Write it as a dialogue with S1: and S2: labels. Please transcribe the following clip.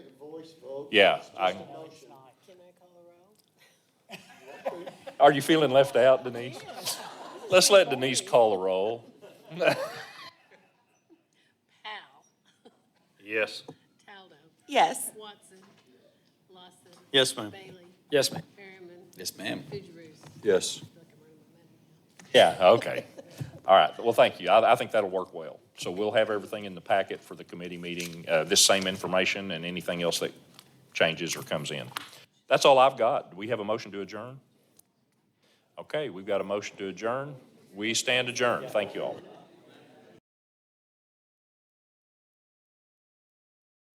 S1: this vote.
S2: Yeah,
S1: It's just
S2: I-
S1: a motion.
S3: Can I call a roll?
S2: Are you feeling left out, Denise? Let's let Denise call the roll.
S4: Powell,
S2: Yes.
S4: Taldo,
S3: Yes.
S4: Watson, Lawson.
S5: Yes, ma'am.
S4: Bailey,
S5: Yes, ma'am.
S4: Harriman,
S6: Yes, ma'am.
S4: Fujirus.
S6: Yes.
S4: Feel like I'm running my mouth.
S2: Yeah, okay. All right, well, thank you. I, I think that'll work well. So we'll have everything in the packet for the committee meeting, uh, this same information and anything else that changes or comes in. That's all I've got. Do we have a motion to adjourn? Okay, we've got a motion to adjourn. We stand adjourned. Thank you all.